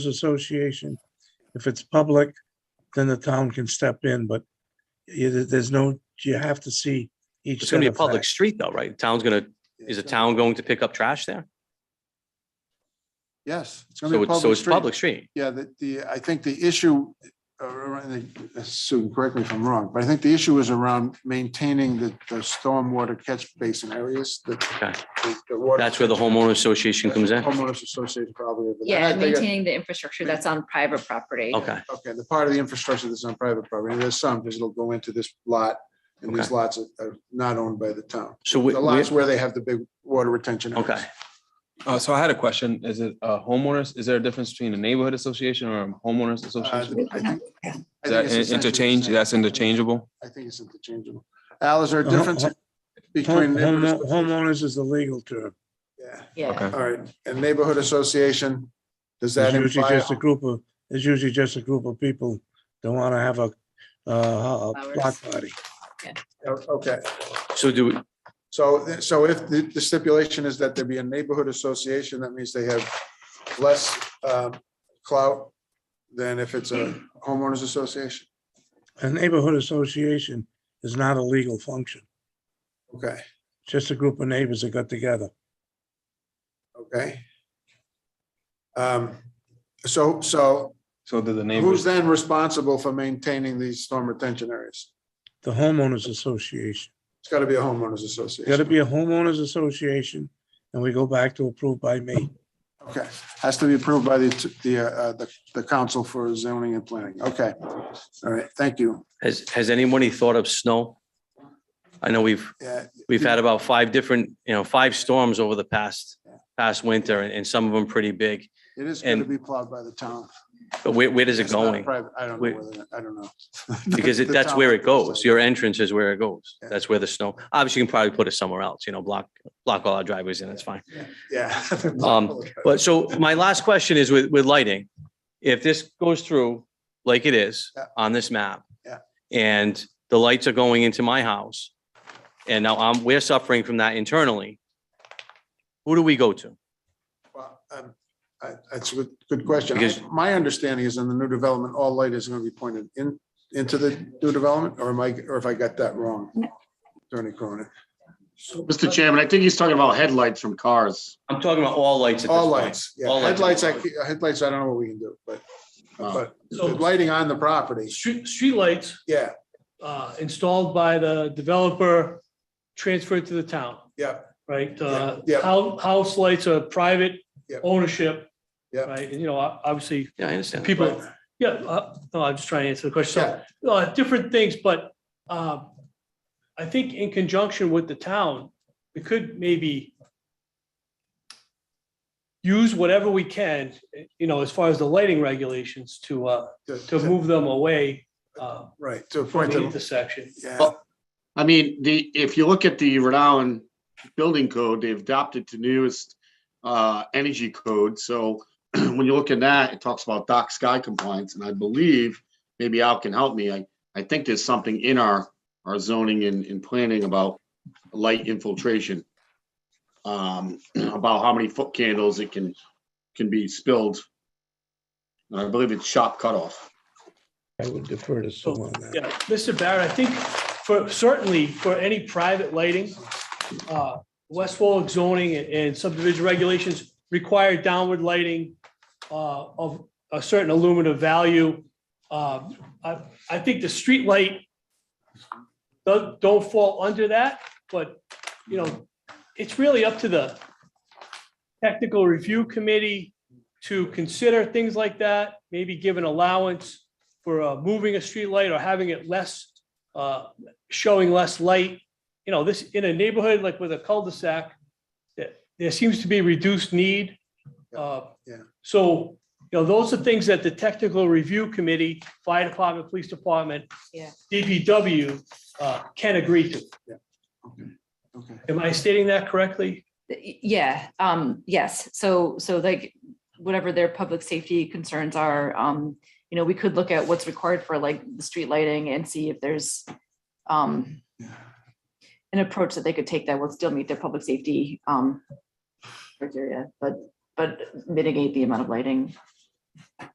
Association. If it's public, then the town can step in, but you- there- there's no, you have to see each. It's gonna be a set of public facts. street though, right? Town's gonna, is the town going to pick up trash there? Yes, it's gonna So be a it's, so public it's public street. street. Yeah, the, the, I think the issue, uh, around the- Sue, correct me if I'm wrong, but I think the issue is around maintaining the, the stormwater catch basin areas that. Okay. the- the water- That's where the homeowner association comes in? Homeowners Association probably. but I Yeah, think- maintaining the infrastructure that's on private property. Okay, Okay, the part of the infrastructure that's on private property, and there's some, because it'll go into this lot, and these Okay. lots are- are not owned by the town. so we, The lots we- where they have the big water retention. areas. okay, Uh, so I had a question. Is it uh, homeowners? Is there a difference between a neighborhood association or a homeowners Uh, association? I think- I Is think that it's in- essentially the interchange? same. That's interchangeable? I think it's interchangeable. Al, is there a Uh, difference ho- between? Home- neighbors- home- Homeowners is the legal term. Yeah, Yeah, Okay. all right. And neighborhood association, does that It's usually imply? just a group of, it's usually just a group of people that want to have a, uh, a block party. Okay, so do, we- so, so if the the stipulation is that there be a neighborhood association, that means they have less um, clout than if it's a homeowners association? A neighborhood association is not a legal function. Okay, It's Just a group of neighbors that got together. okay. Um, So, so So do the who's neighbors? then responsible for maintaining these storm retention areas? The homeowners association. It's gotta be a homeowners It's got to association. be a homeowners association and we go back to approved by me. Okay, has to be approved by the, the, uh, the, the council for zoning and planning. Okay. All right, thank you. has, has anybody thought of snow? I know we've, Yeah, we've had about five different, you know, five storms over the past, past winter and, and some of them pretty big. it is gonna And- be plowed by the town. But where, where does it It's not a going? private- I don't know, Where- whether- I don't know. Because it- The that's town where it will goes. decide. Your entrance is where it goes. Yeah. That's where the snow, obviously you can probably put it somewhere else, you know, block, block all our driveways in, it's fine. Yeah. Um, But so my last question is with, with lighting. If this goes through like it is Yeah. on this map. Yeah. And the lights are going into my house. And now I'm, we're suffering from that internally. Who do we go to? Well, um, I- That's a good- good question. Because- I- My understanding is in the new development, all light is gonna be pointed in, into the new development, or am I, or if I got that wrong? Attorney Cronin. Mr. Chairman, I think he's talking about headlights from cars. I'm talking about all lights at this All point. lights, yeah, All lights. headlights, I, ca- headlights, I don't know what we can do, but, Um, but the So lighting on the property, street, streetlights yeah, uh, installed by the developer transferred to the town, yeah, right? Uh, Yeah, yeah. hou- House lights are private Yeah. ownership. Yeah. Right, and you know, ob- obviously, Yeah, I understand. people, yeah, uh, no, I'm just trying to answer the question. yeah, So, uh, different things, but uh, I think in conjunction with the town, we could maybe use whatever we can, you know, as far as the lighting regulations to, uh, to move them away uh, Right, to a from point, the that- intersection. yeah, I mean, the, if you look at the Rhode Island building code, they've adopted the newest uh, energy code. So when you look at that, it talks about dark sky compliance, and I believe, maybe Al can help me, I, I think there's something in our, our zoning and, and planning about light infiltration. Um, about how many foot candles it can, can be spilled. And I believe it's shop cutoff. I would defer to someone on that. Yeah, Mr. Barrett, I think for, certainly for any private lighting, uh, West Warwick zoning and subdivision regulations require downward lighting uh, of a certain illuminative value. Uh, I, I think the street light don't, don't fall under that, but, you know, it's really up to the technical review committee to consider things like that, maybe give an allowance for uh, moving a streetlight or having it less, uh, showing less light. You know, this, in a neighborhood like with a cul-de-sac, there- there seems to be reduced need. Uh, Yeah. So, you know, those are things that the technical review committee, fire department, police department, Yeah. DPW uh, can agree to. okay. Am I stating that correctly? yeah, um, yes, so, so like, whatever their public safety concerns are, um, you know, we could look at what's required for like the street lighting and see if there's um, an approach that they could take that would still meet their public safety um criteria, but, but mitigate the amount of lighting